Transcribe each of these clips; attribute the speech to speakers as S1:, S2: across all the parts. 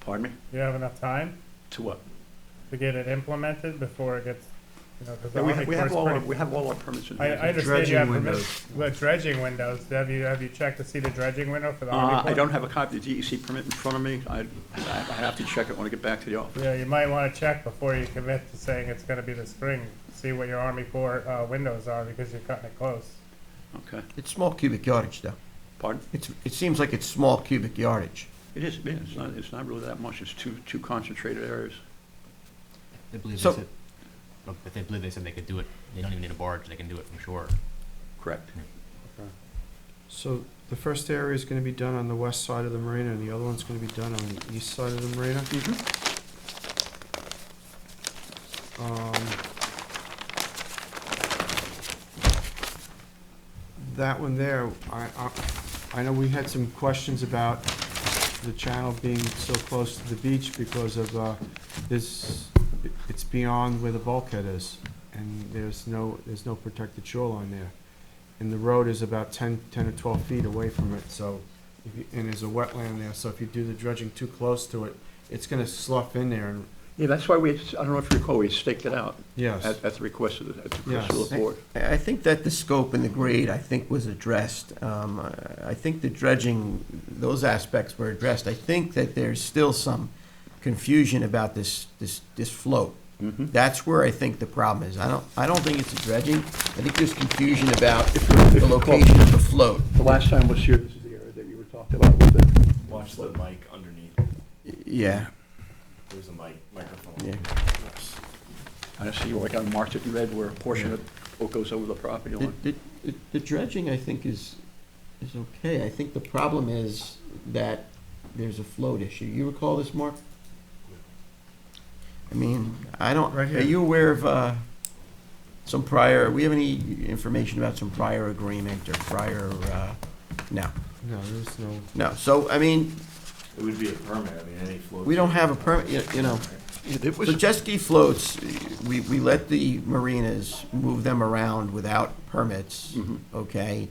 S1: Pardon me?
S2: Do you have enough time
S1: To what?
S2: to get it implemented before it gets, you know, because the
S1: Yeah, We
S2: Army
S1: have, we
S2: Corps
S1: have
S2: is
S1: all, our-
S2: pretty.
S1: we have all our permits in
S2: I,
S1: hand.
S2: I understand you have
S3: Dredging
S2: permission, the dredging windows, have you, have you checked to see the dredging window for the Army
S1: Uh,
S2: Corps?
S1: I don't have a copy of the DEC permit in front of me. I, I I have to check it when I get back to the office.
S2: Yeah, you might want to check before you commit to saying it's gonna be the spring, see what your Army Corps, uh, windows are, because you're cutting it close.
S1: Okay,
S3: It's small cubic yardage, though.
S1: pardon?
S3: It's, it seems like it's small cubic yardage.
S1: It is, it is. It's not, it's not really that much. It's two, two concentrated areas.
S4: They believe
S3: So-
S4: they said, look, if they believe they said they could do it, they don't even need a barge, they can do it from shore.
S1: Correct.
S5: So the first area is gonna be done on the west side of the marina, and the other one's gonna be done on the east side of the marina.
S1: Mm-hmm.
S5: Um, That one there, I, I, I know we had some questions about the channel being so close to the beach because of, uh, this, it's beyond where the bulkhead is, and there's no, there's no protected shoreline there and the road is about 10, 10 or 12 feet away from it, so, if you- and there's a wetland there, so if you do the dredging too close to it, it's gonna slough in there, and,
S1: Yeah, that's why we, I don't know if you recall, we staked it out
S5: yes.
S1: at, at the request of, the- at the request of
S5: Yes.
S1: the board.
S3: I I think that the scope and the grade, I think, was addressed. Um, I I think the dredging, those aspects were addressed. I think that there's still some confusion about this, this, this float.
S1: Mhm.
S3: That's where I think the problem is. I don't, I don't think it's the dredging. I think there's confusion about the location of the float.
S1: The last time was here, this is the area that you were talking about with the.
S6: Watch the mic underneath.
S3: Yeah,
S6: There's a mic, microphone.
S3: yeah.
S1: I see, like I marked it in red where a portion of it goes over the property
S3: The-
S1: line.
S3: The the- the dredging, I think, is, is okay. I think the problem is that there's a float issue. You recall this, Mark? I mean, I don't,
S5: Right here.
S3: are you aware of uh, some prior, we have any information about some prior agreement or prior, uh, no,
S5: No, there's no,
S3: no. So, I mean,
S6: It would be a permit, I mean, any float.
S3: we don't have a permit, you- you know.
S1: Yeah, It
S3: So
S1: was,
S3: jet ski floats, we, we let the marinas move them around without permits,
S2: Mm-hmm.
S1: Mhm.
S3: okay?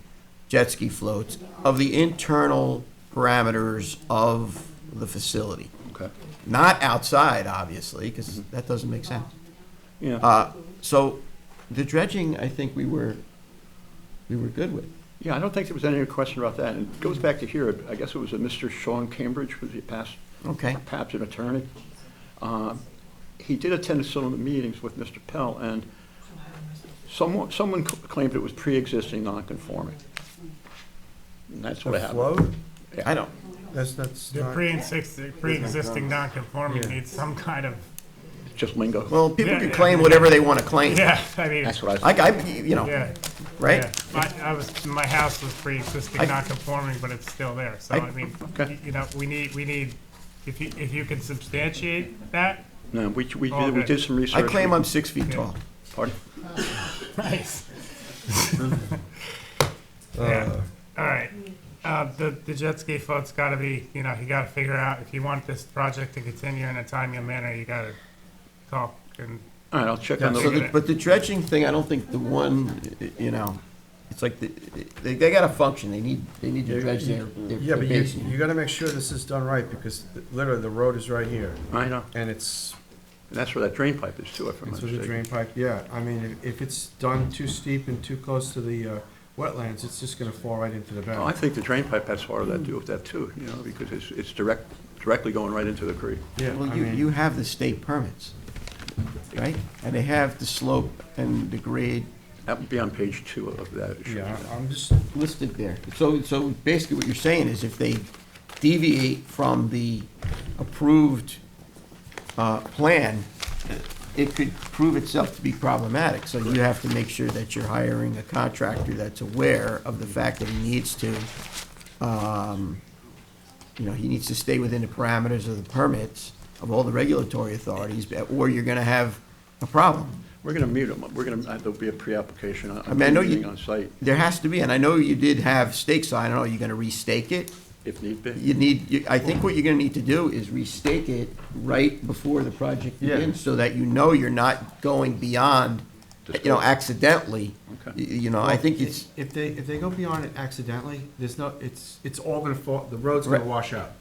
S3: Jet ski floats of the internal parameters of the facility,
S1: okay,
S3: not outside, obviously, because
S2: Mm-hmm.
S3: that doesn't make sense.
S1: yeah.
S3: Uh, so the dredging, I think we were, we were good with.
S1: Yeah, I don't think there was any question about that. And it goes back to here, I guess it was a Mr. Sean Cambridge, was he past,
S3: Okay,
S1: perhaps an attorney. Uh, He did attend some of the meetings with Mr. Pell, and someone, someone c- claimed it was pre-existing non-conforming. And that's what
S5: the
S1: happened.
S5: float,
S3: I don't,
S5: that's, that's
S2: The
S5: not,
S2: pre-existing, pre-existing non-conforming
S5: Yeah.
S2: needs some kind of,
S1: Just lingo.
S3: well, people
S2: Yeah,
S3: can
S2: yeah.
S3: claim whatever they want to claim.
S2: yeah, I mean,
S1: That's what I,
S3: Like, I, you know,
S2: yeah.
S3: right?
S2: Yeah, My, I was, my house was
S3: I-
S2: pre-existing, non-conforming, but it's still there, so
S3: I-
S2: I mean,
S1: okay.
S2: y- you know, we need, we need, if you, if you can substantiate that,
S1: no, we, we
S2: Oh,
S1: did- we
S2: okay.
S1: did some research.
S3: I claim I'm six feet
S2: Yeah.
S3: tall.
S1: Pardon?
S2: nice. Yeah, all right, uh, the, the jet ski float's gotta be, you know, you gotta figure out, if you want this project to continue in a timely manner, you gotta talk and,
S1: All right, I'll check on
S2: Yeah,
S3: So,
S1: the,
S3: the- but the dredging thing, I don't think the one, you know, it's like, the- they, they gotta function, they need, they need to dredge their, their
S5: yeah,
S3: their
S5: but you,
S3: basin.
S5: you gotta make sure this is done right, because th- literally, the road is right here,
S1: I know,
S5: and it's,
S1: and that's where that drain pipe is too, if I'm
S5: it's
S1: not
S5: with a
S1: mistaken.
S5: drain pipe, yeah, I mean, if- if it's done too steep and too close to the, uh, wetlands, it's just gonna fall right into the
S1: Well,
S3: Oh,
S1: I
S5: bank.
S1: think the drain pipe has part of that, do with that too, you know, because it's, it's direct, directly going right into the creek.
S5: Yeah, I
S3: Well, you,
S5: mean-
S3: you have the state permits, right? And they have the slope and the grade
S1: That would be on page two of that.
S5: Yeah, I- I'm just,
S3: listed there. So, so basically what you're saying is if they deviate from the approved, uh, plan, it could prove itself to be problematic. So you have to make sure that you're hiring a contractor that's aware of the fact that he needs to, um, you know, he needs to stay within the parameters of the permits of all the regulatory authorities, or you're gonna have a problem.
S1: We're going to meet them, we're going to, there'll be a pre-application.
S3: I mean, I know you-
S1: meeting On site,
S3: There has to be, and I know you did have stakes on, I don't know, you're gonna restake it?
S1: if need be.
S3: you need, you- I think what you're gonna need to do is restake it right before the project
S5: Yeah.
S3: begins, so that you know you're not going beyond, you know, accidentally. Y-
S1: Okay.
S3: You know, I think it's,
S5: If they, if they go beyond it accidentally, there's no, it's, it's all gonna fall, the road's gonna
S3: Right.
S5: wash out.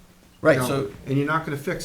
S3: right,
S5: You know,
S3: so.
S5: And you're not gonna fix